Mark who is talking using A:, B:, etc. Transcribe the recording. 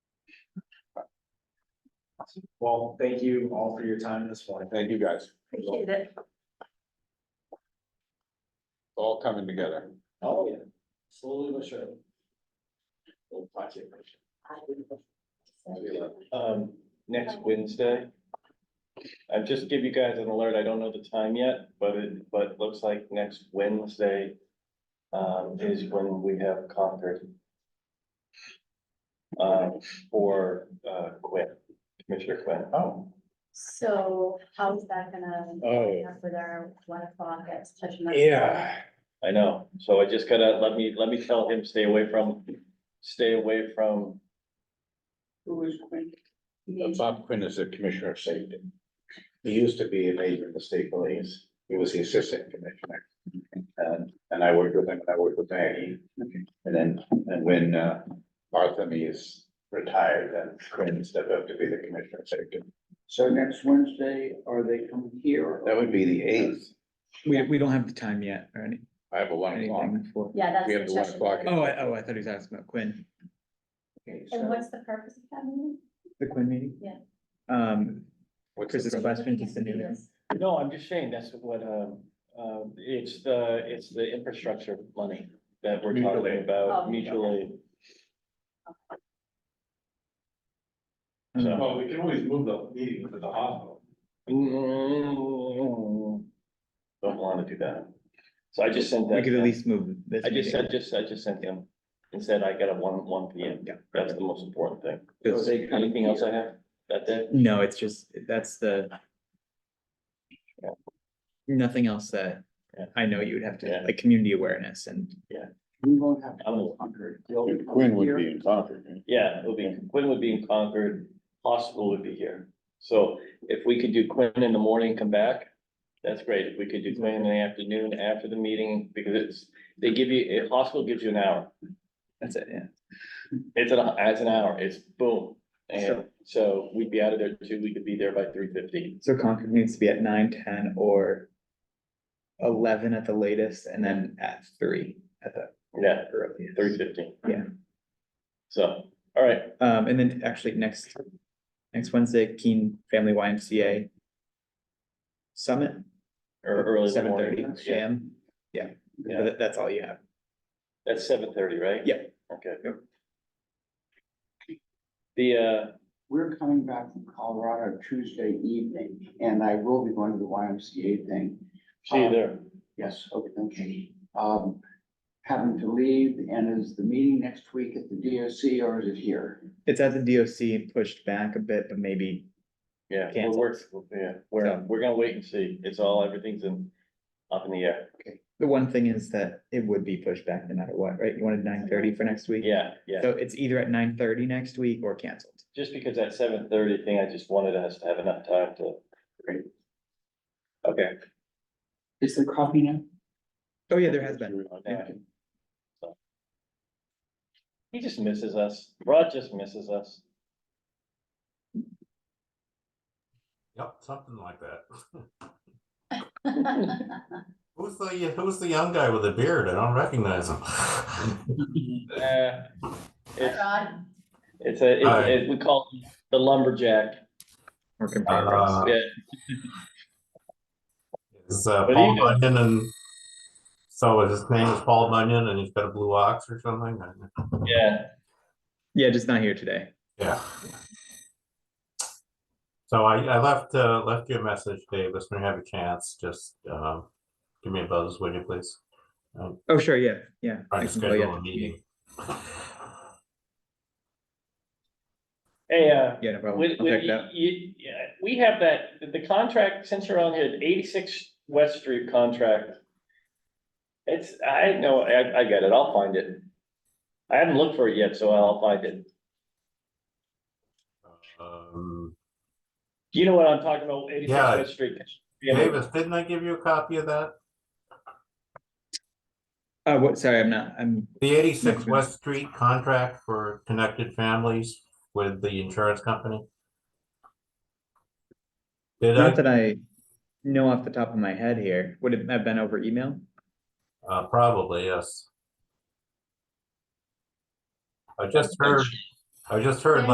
A: Well, thank you all for your time this morning.
B: Thank you guys.
C: Appreciate it.
B: All coming together.
A: Oh, yeah. Slowly but surely. We'll watch it.
D: um, next Wednesday. I've just give you guys an alert, I don't know the time yet, but it, but it looks like next Wednesday um, is when we have Concord um, for, uh, Quinn, Commissioner Quinn.
B: Oh.
C: So how's that gonna?
B: Oh.
C: Up with our one o'clock at such. a-
B: Yeah.
D: I know, so I just gotta, let me, let me tell him, stay away from, stay away from,
E: Who is Quinn?
C: Me.
B: Bob Quinn is the Commissioner of Safety.
F: He used to be a major in the state police. He was the assistant commissioner. And, and I worked with him, and I worked with Maggie. And then, and when, uh, Bartholomew is retired, then Quinn stepped up to be the commissioner of safety.
E: So next Wednesday, are they coming here?
F: That would be the eighth.
G: We, we don't have the time yet or any,
F: I have a one o'clock.
G: anything for,
C: Yeah, that's.
F: We have the one
C: session.
F: o'clock.
G: oh, I, oh, I thought he was asking about Quinn,
E: Okay, so-
C: And what's the purpose of that meeting?
G: the Quinn meeting?
C: Yeah.
G: Um,
B: What's
G: Chris's question, just the new,
C: Yes.
D: no, I'm just saying, that's what, um, uh, it's the, it's the infrastructure money that we're
G: Mutual
D: talking
G: aid.
D: about
C: Oh.
D: mutually.
G: um,
D: So-
H: Well, Oh, we can always move the meeting to the hospital.
D: Don't wanna do that. So I just sent that.
G: we could at least move this.
D: I just
G: meeting.
D: said, just, I just sent him and said I got a one, one P M.
G: Yeah.
D: That's the most important thing.
G: Because-
D: Anything else I have? That day?
G: No, it's just, that's the. Nothing else that
D: Yeah.
G: I know you would have to,
D: Yeah.
G: like, community awareness and
E: We won't have.
D: I'm a-
E: Concord.
F: Quinn would be in Concord. right?
D: Yeah, it'll be, Quinn would be in Concord, hospital would be here. So if we could do Quinn in the morning, come back, that's great. If we could do Quinn in the afternoon after the meeting, because it's, they give you, a hospital gives you an hour.
G: that's it, yeah.
D: It's an, it's an hour, it's boom. And so we'd be out of there too, we could be there by three fifteen.
G: So Concord needs to be at nine, ten or. Eleven at the latest and then at three at the
D: Yeah,
G: earliest.
D: three fifteen.
G: Yeah.
D: So, all right,
G: Um, and then actually next, next Wednesday, Keen Family YMCA. Summit,
D: or early in the
G: seven
D: morning.
G: thirty,
D: Yeah,
G: sham, yeah,
D: Yeah.
G: That- that's all you have.
D: That's seven thirty, right?
G: Yeah.
D: Okay.
G: Yep.
D: The, uh,
E: We're coming back from Colorado Tuesday evening, and I will be going to the YMCA thing.
D: see you there.
E: Yes, okay, okay. Um, having to leave, and is the meeting next week at the DOC or is it here?
G: It's at the DOC and pushed back a bit, but maybe,
D: Yeah, we're,
G: Cancel.
D: work- yeah, we're,
G: So-
D: we're gonna wait and see. It's all, everything's in, up in the air.
G: the one thing is that it would be pushed back no matter what, right? You wanted nine thirty for next week?
D: Yeah, yeah.
G: So it's either at nine thirty next week or canceled.
D: Just because that seven thirty thing, I just wanted us to have enough time to. Okay.
E: Is there coffee now?
G: Oh, yeah, there has been.
D: yeah. So. He just misses us. Rod just misses us.
H: Yep, something like that. Who's the, who's the young guy with the beard? I don't recognize him.
D: Uh, It's,
C: Rod,
D: it's a,
H: Hi.
D: it's- it, we call it the lumberjack.
G: Work in progress.
H: Uh,
D: Yeah,
H: Is uh,
D: But
H: Paul
D: he knows.
H: Bunyan and, so his name is Paul Bunyan and he's got a blue ox or something?
D: yeah.
G: Yeah, just not here today.
H: Yeah. So I, I left, uh, left you a message, Davis, when you have a chance, just, um, give me a buzz, would you please?
G: Oh, sure, yeah, yeah.
H: Try
G: I
H: to
G: can call you
H: schedule a
G: after-
H: meeting.
D: Hey, uh,
G: Yeah, no problem.
D: with,
G: I'll
D: with,
G: check it out.
D: you, yeah, we have that, the contract, since you're on here, the eighty-six West Street contract. It's, I know, I, I get it. I'll find it. I haven't looked for it yet, so I'll find it.
H: Um,
D: You know what I'm talking about, eighty-six
H: Yeah.
D: West Street. Yeah.
H: Davis, didn't I give you a copy of that?
G: Uh, what, sorry, I'm not, I'm,
H: The eighty-six
G: Okay.
H: West Street contract for connected families with the insurance company? Did
G: not
H: I,
G: that I know off the top of my head here. Would it have been over email?
H: uh, probably, yes. I just heard, I just heard
C: Yeah.